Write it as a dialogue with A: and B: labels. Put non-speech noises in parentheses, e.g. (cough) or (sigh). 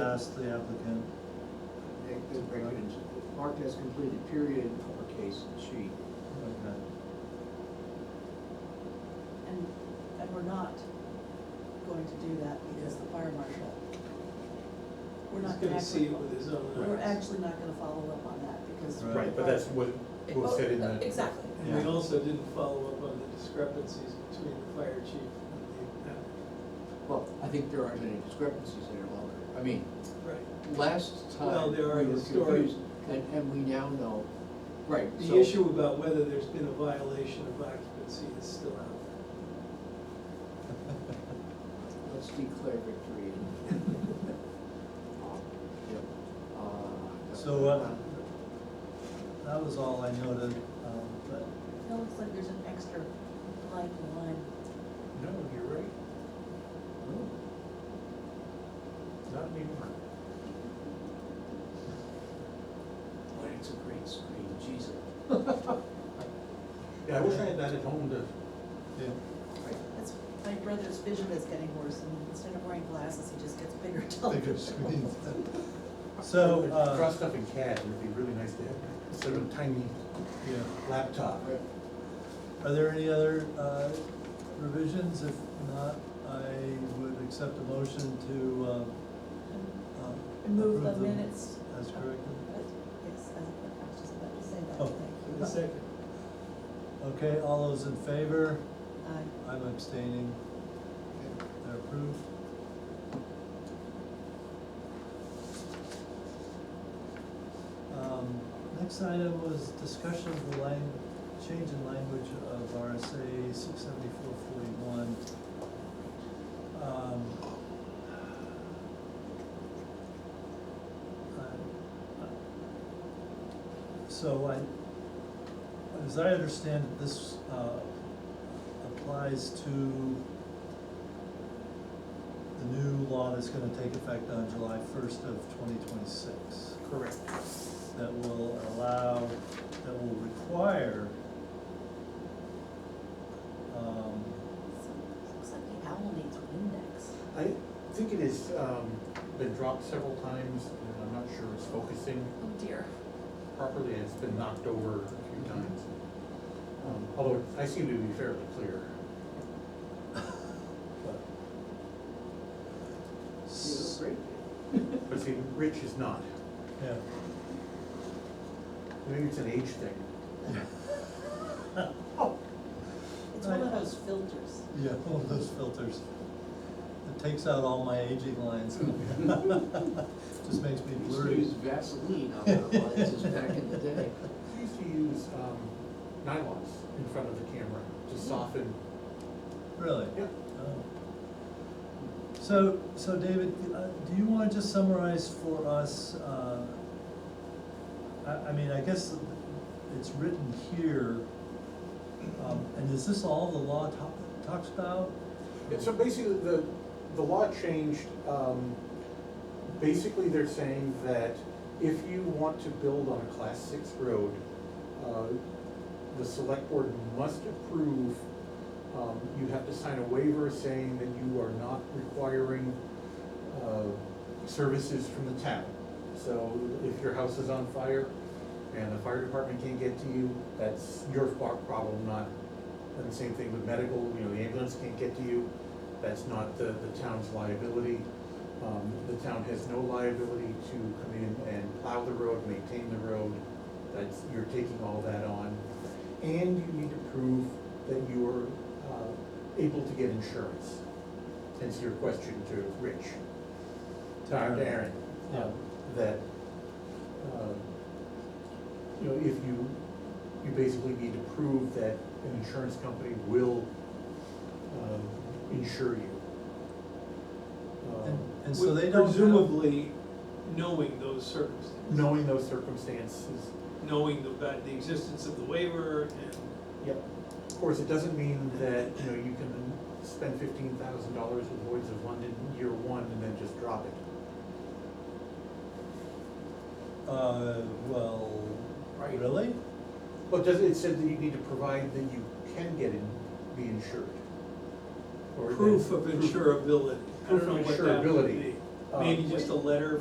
A: ask the applicant,
B: They- they break it into- Marked as completed, period, uppercase, she.
A: okay,
C: And, and we're not going to do that because the fire marshal. We're
D: He's
C: not
D: gonna see
C: actually,
D: it with his own
C: we're
D: eyes.
C: actually not gonna follow up on that because.
A: Right.
E: Right, but that's what was said in the.
C: Exactly.
D: And we also didn't follow up on the discrepancies between the fire chief and the applicant.
B: Well, I think there aren't any discrepancies there longer. I mean,
D: Right.
B: last
D: Well,
B: time we
D: there are
B: were
D: the stories.
B: confused, and, and we now know, right, so.
D: The issue about whether there's been a violation of occupancy is still out there.
B: Let's declare victory. um, Yep. Uh,
A: so, uh, that was all I noted, um, but,
C: It looks like there's an extra blank line.
E: No, you're right,
A: oh,
E: not anymore.
B: Boy, it's a great screen, Jesus.
E: Yeah, I wish I had that at home to,
A: yeah.
B: Right.
C: That's, my brother's vision is getting worse and instead of wearing glasses, he just gets bigger
A: Bigger
C: television.
A: screens. So, uh,
E: draw stuff in CAD, and it'd be really nice to have, instead of a tiny
A: Yeah,
E: laptop.
B: Right.
A: are there any other, uh, revisions? If not, I would accept a motion to, um, um,
C: And move
E: (laughs)
C: the
A: approve them
C: minutes.
A: As corrected.
C: Yes, I was just about to say
A: Oh.
C: that,
D: The
C: thank you.
D: second,
A: Okay, all those in favor?
C: Aye.
A: I'm abstaining. They're approved. Um, Next item was discussion of the lang, change in language of RSA six seventy-four forty-one. Um, uh, So I, as I understand it, this uh, applies to the new law that's gonna take effect on July first of twenty twenty-six,
E: Correct.
A: that will allow, that will require, um,
C: Looks like the owl needs an index.
E: I think it has, um, been dropped several times, and I'm not sure it's focusing
C: Oh dear.
E: properly, and it's been knocked over a few times. Um, Although I seem to be fairly clear. But-
A: s-
B: Great.
E: But see, Rich is not.
A: yeah. (laughs)
E: Maybe it's an age thing.
C: It's one
A: Right.
C: of those filters.
A: Yeah, one of those filters. It takes out all my aging lines. (laughs) Just makes me
B: We used to
A: blurry.
B: use Vaseline on our lenses back in the day.
E: I used to use um, nylons in front of the camera to soften.
A: Really?
E: Yeah.
A: Oh. So, so David, uh, do you wanna just summarize for us, uh, I, I mean, I guess it's written here, um, and is this all the law to- talks about?
E: And so basically, the, the law changed, um, basically they're saying that if you want to build on a class six road, uh, the select board must approve, um, you have to sign a waiver saying that you are not requiring, uh, services from the town. So if your house is on fire and the fire department can't get to you, that's your far- problem, not and the same thing with medical, you know, the ambulance can't get to you, that's not the, the town's liability. Um, the town has no liability to come in and plow the road, maintain the road, that's, you're taking all that on. And you need to prove that you're, uh, able to get insurance, hence your question to Rich, to Aaron.
A: Yeah.
E: That, uh, you know, if you, you basically need to prove that an insurance company will, um, insure you. Um,
A: And, and so they don't have-
D: Presumably knowing those circumstances.
E: Knowing those circumstances,
D: Knowing the, ba- the existence of the waiver and,
E: yep. Of course, it doesn't mean that, you know, you can spend fifteen thousand dollars with Lloyd's of London year one and then just drop it.
A: Uh, well,
E: Right.
A: really?
E: Well, it does, it said that you need to provide that you can get in, be insured. Or that-
D: proof of insurability. I don't know
E: Proof
D: what
E: of
D: that would
E: insurability.
D: be.
E: Uh,
D: Maybe just a letter